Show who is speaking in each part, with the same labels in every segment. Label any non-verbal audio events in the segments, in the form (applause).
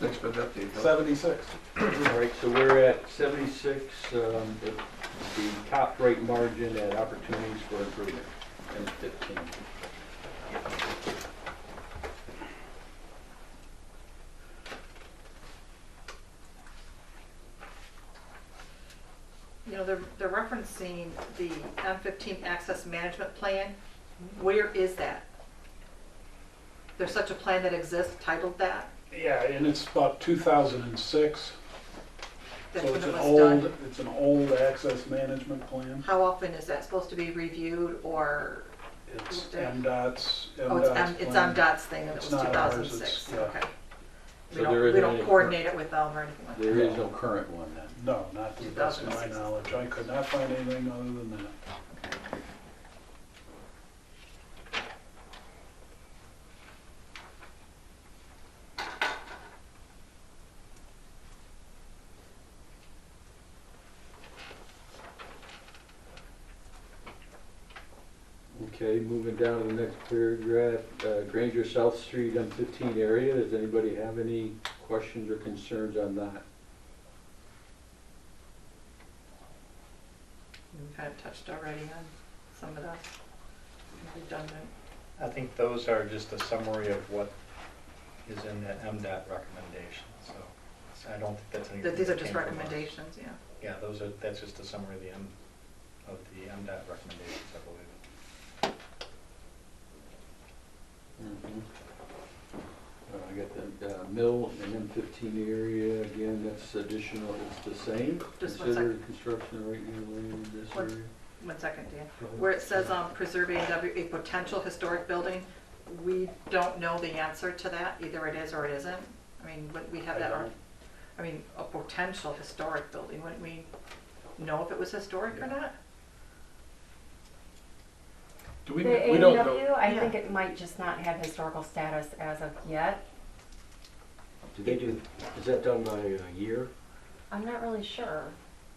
Speaker 1: Thanks for the update. Bill.
Speaker 2: Seventy-six.
Speaker 3: All right, so we're at seventy-six, um, the, the top rate margin and opportunities for improvement, and fifteen.
Speaker 4: You know, they're, they're referencing the M fifteen access management plan. Where is that? There's such a plan that exists titled that?
Speaker 2: Yeah, and it's about two thousand and six,
Speaker 4: That's
Speaker 2: so
Speaker 4: when
Speaker 2: it's
Speaker 4: it
Speaker 2: an
Speaker 4: was
Speaker 2: old,
Speaker 4: done.
Speaker 2: it's an old access management plan.
Speaker 4: How often is that supposed to be reviewed or,
Speaker 2: It's
Speaker 4: Yeah.
Speaker 2: MDOT's, MDOT's
Speaker 4: oh, it's M, it's
Speaker 2: plan.
Speaker 4: MDOT's thing and it
Speaker 2: It's
Speaker 4: was two
Speaker 2: not ours,
Speaker 4: thousand
Speaker 2: it's-
Speaker 4: six,
Speaker 2: yeah.
Speaker 4: okay. We
Speaker 3: So there
Speaker 4: don't, we
Speaker 3: isn't
Speaker 4: don't
Speaker 3: any-
Speaker 4: coordinate it with them or anything like that.
Speaker 3: There is no current one then.
Speaker 2: No, not to the best of my knowledge. I could not find anything other than that.
Speaker 3: Okay, moving down to the next paragraph, uh, Granger South Street, M fifteen area, does anybody have any questions or concerns on that?
Speaker 4: We kind of touched already on some of that. Redundant.
Speaker 5: I think those are just a summary of what is in that MDOT recommendation, so I don't think that's anything.
Speaker 4: That These are
Speaker 5: that
Speaker 4: just
Speaker 5: came from us.
Speaker 4: recommendations, yeah.
Speaker 5: Yeah, those are, that's just a summary of the M, of the MDOT recommendations, I believe.
Speaker 3: Mm-hmm. Uh, I got the, uh, mill and M fifteen area, again, that's additional, it's the same.
Speaker 4: Just one
Speaker 3: Consider construction of right near land in this
Speaker 4: One-
Speaker 3: area.
Speaker 4: One second, Dan. Where it says um, preserving W- a potential historic building, we don't know the answer to that. Either it is or it isn't. I mean, would we have
Speaker 2: I
Speaker 4: that, ar-
Speaker 2: don't-
Speaker 4: I mean, a potential historic building, wouldn't we know if it was historic or not?
Speaker 1: Do
Speaker 6: The
Speaker 1: we, we don't know.
Speaker 6: AEW, I
Speaker 4: Yeah.
Speaker 6: think it might just not have historical status as of yet.
Speaker 7: Do they do, is that done by a year?
Speaker 6: I'm not really sure.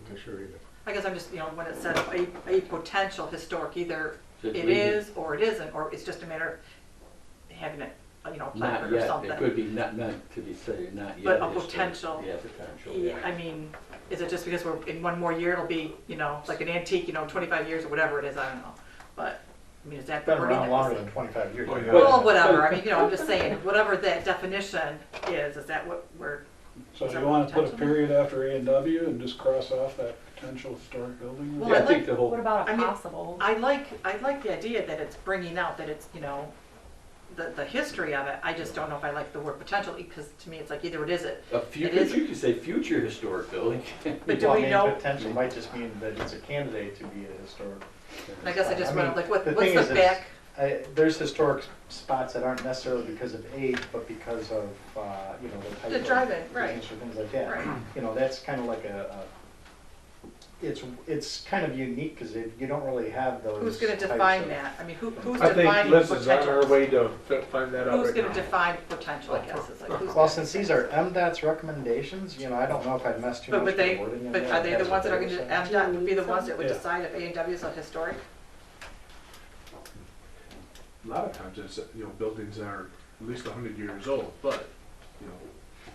Speaker 7: I'm not sure either.
Speaker 4: I guess I'm just, you know, when it says a, a potential historic, either
Speaker 3: Just
Speaker 4: it
Speaker 3: read it.
Speaker 4: is or it isn't, or it's just a matter of having it, you know,
Speaker 3: Not
Speaker 4: placard or
Speaker 3: yet,
Speaker 4: something.
Speaker 3: it could be not meant to be said, not yet.
Speaker 4: But a
Speaker 3: It's the-
Speaker 4: potential.
Speaker 3: Yeah, potential,
Speaker 4: Yeah,
Speaker 3: yeah.
Speaker 4: I mean, is it just because we're, in one more year, it'll be, you know, like an antique, you know, twenty-five years or whatever it is, I don't know. But, I mean, is that the
Speaker 5: Been
Speaker 4: wording that
Speaker 5: around
Speaker 4: was-
Speaker 5: longer than twenty-five years.
Speaker 1: Oh, yeah.
Speaker 4: Well, whatever, I mean, you know, I'm just saying, whatever that definition is, is that what we're,
Speaker 2: So
Speaker 4: Is
Speaker 2: you
Speaker 4: that
Speaker 2: want to put a
Speaker 4: potential?
Speaker 2: period after A and W and just cross off that potential historic building?
Speaker 4: Well,
Speaker 3: Yeah,
Speaker 4: I
Speaker 3: I think
Speaker 4: like-
Speaker 3: the whole.
Speaker 6: What about
Speaker 4: I
Speaker 6: a
Speaker 4: mean,
Speaker 6: possible?
Speaker 4: I like, I like the idea that it's bringing out that it's, you know, the, the history of it, I just don't know if I like the word potential, because to me, it's like either it is it.
Speaker 3: A future,
Speaker 4: It is-
Speaker 3: you could say future historic
Speaker 4: (laughs)
Speaker 3: building. (laughs)
Speaker 4: But do
Speaker 5: Well, I
Speaker 4: we
Speaker 5: mean,
Speaker 4: know,
Speaker 5: Potential might just mean that it's a candidate to be a historic.
Speaker 4: I guess I just
Speaker 5: mean,
Speaker 4: wanna, like, what,
Speaker 5: the
Speaker 4: what's
Speaker 5: thing is,
Speaker 4: the
Speaker 5: is
Speaker 4: back?
Speaker 5: I, there's historic s- spots that aren't necessarily because of age, but because of, uh, you know, the type
Speaker 4: The
Speaker 5: of
Speaker 4: drive-in, right.
Speaker 5: business or things like that.
Speaker 4: Right.
Speaker 5: (clears throat) You know, that's kind of like a, a, it's, it's kind of unique because you don't really have those.
Speaker 4: Who's gonna
Speaker 5: types
Speaker 4: define
Speaker 5: of-
Speaker 4: that? I mean, who, who's
Speaker 1: I think
Speaker 4: defining
Speaker 1: Liz is on her
Speaker 4: potential?
Speaker 1: way to fi- find that out
Speaker 4: Who's
Speaker 1: right
Speaker 4: gonna
Speaker 1: now.
Speaker 4: define potential, I guess, is like, who's
Speaker 5: Well,
Speaker 4: gonna?
Speaker 5: since these are MDOT's recommendations, you know, I don't know if I've messed too much
Speaker 4: But,
Speaker 5: with
Speaker 4: but
Speaker 5: the
Speaker 4: they,
Speaker 5: wording. in
Speaker 4: but
Speaker 5: there,
Speaker 4: are they the
Speaker 5: that's
Speaker 4: ones
Speaker 5: what
Speaker 4: that are
Speaker 5: they
Speaker 4: going to,
Speaker 5: were saying.
Speaker 4: MDOT would be the ones that would
Speaker 2: Yeah.
Speaker 4: decide if A and W is a historic?
Speaker 1: A lot of times, it's, you know, buildings are at least hundred years old, but, you know,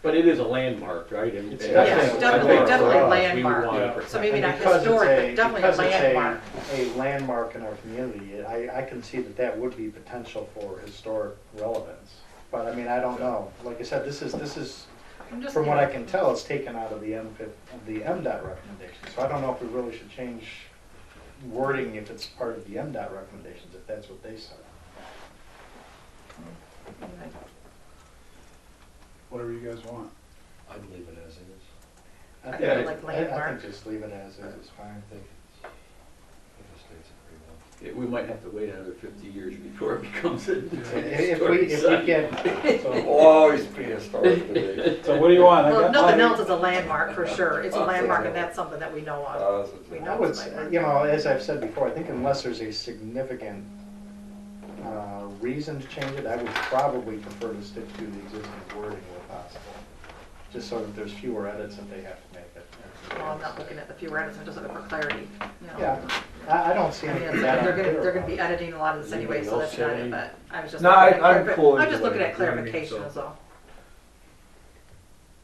Speaker 3: But it is a landmark, right? And-
Speaker 5: It's
Speaker 3: and I
Speaker 5: definitely-
Speaker 3: think- I
Speaker 5: definitely-
Speaker 3: think for
Speaker 5: definitely
Speaker 3: us, we
Speaker 4: landmark.
Speaker 3: wanna
Speaker 2: Yeah.
Speaker 3: protect
Speaker 4: So maybe
Speaker 5: And
Speaker 4: not
Speaker 5: because it's
Speaker 4: historic,
Speaker 5: a-
Speaker 4: but definitely a
Speaker 5: because it's
Speaker 4: landmark.
Speaker 5: A landmark in our community, I, I can see that that would be potential for historic relevance. But I mean, I don't know. Like I said, this is, this is,
Speaker 4: I'm just-
Speaker 5: from what I can tell, it's taken out of the M, of the MDOT recommendation. So I don't know if we really should change wording if it's part of the MDOT recommendations, if that's what they said.
Speaker 2: Whatever you guys want.
Speaker 7: I believe it as is.
Speaker 4: I
Speaker 5: think-
Speaker 4: kinda like
Speaker 5: I- I
Speaker 4: landmark.
Speaker 5: think just leave it as is, is fine.
Speaker 7: I think it's, I think it states it pretty well.
Speaker 3: it. We might have to wait another fifty years before it (laughs) becomes a
Speaker 5: If we,
Speaker 3: historic
Speaker 5: if we
Speaker 3: site.
Speaker 5: get,
Speaker 7: (laughs)
Speaker 2: So
Speaker 7: Always prehistoric to me.
Speaker 2: so what do you want? I
Speaker 4: Well,
Speaker 2: got
Speaker 4: nothing
Speaker 2: mine.
Speaker 4: else is a landmark for sure. It's a landmark and that's something that we know of.
Speaker 7: Uh, it's-
Speaker 4: We
Speaker 5: I
Speaker 4: know
Speaker 5: would,
Speaker 4: it's a
Speaker 5: say,
Speaker 4: landmark.
Speaker 5: you know, as I've said before, I think unless there's a significant uh, reason to change it, I would probably prefer to stick to the existing wording where possible, just so that there's fewer edits if they have to make it.
Speaker 4: Well, I'm not looking at the few edits, I'm just looking for clarity, you know.
Speaker 5: Yeah, I, I don't see
Speaker 4: I mean,
Speaker 5: anything
Speaker 4: it's-
Speaker 5: that
Speaker 4: they're
Speaker 5: unclear
Speaker 4: gonna, they're gonna
Speaker 5: about
Speaker 4: be
Speaker 5: it.
Speaker 4: editing a lot of this anyway, so that's not it, but I was just.
Speaker 1: No,
Speaker 4: looking at
Speaker 1: I- I'm
Speaker 4: clarif-
Speaker 1: pulling
Speaker 4: I'm just
Speaker 1: away,
Speaker 4: looking at
Speaker 1: you know what I mean,
Speaker 4: clarification
Speaker 1: so-
Speaker 4: is all.